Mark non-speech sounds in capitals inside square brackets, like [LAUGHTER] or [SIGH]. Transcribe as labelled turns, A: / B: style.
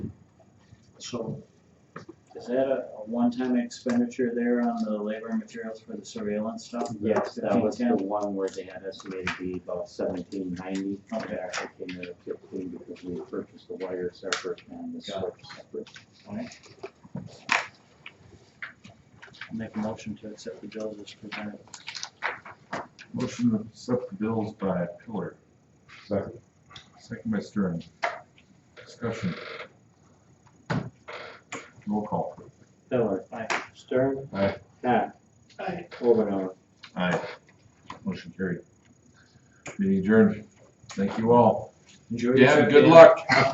A: So is that a, a one-time expenditure there on the labor and materials for the surveillance stuff?
B: Yes, that was the
A: 1510?
B: one where they had estimated to be about seventeen ninety.
A: Okay.
B: It actually came in at fifteen because we purchased the wire separate and the
A: Got
B: switch separate.
A: Make a motion to accept the bills as presented.
C: Motion to accept the bills by Pillar. Second. Second by Stern. Discussion. Roll call.
B: Miller.
A: Aye.
B: Stern.
C: Aye.
B: Hack.
A: Aye.
B: Omenauer.
C: Aye. Motion carried. Meeting adjourned. Thank you all.
A: Enjoy your
C: Dan, good
A: surveillance.
C: [LAUGHS] luck.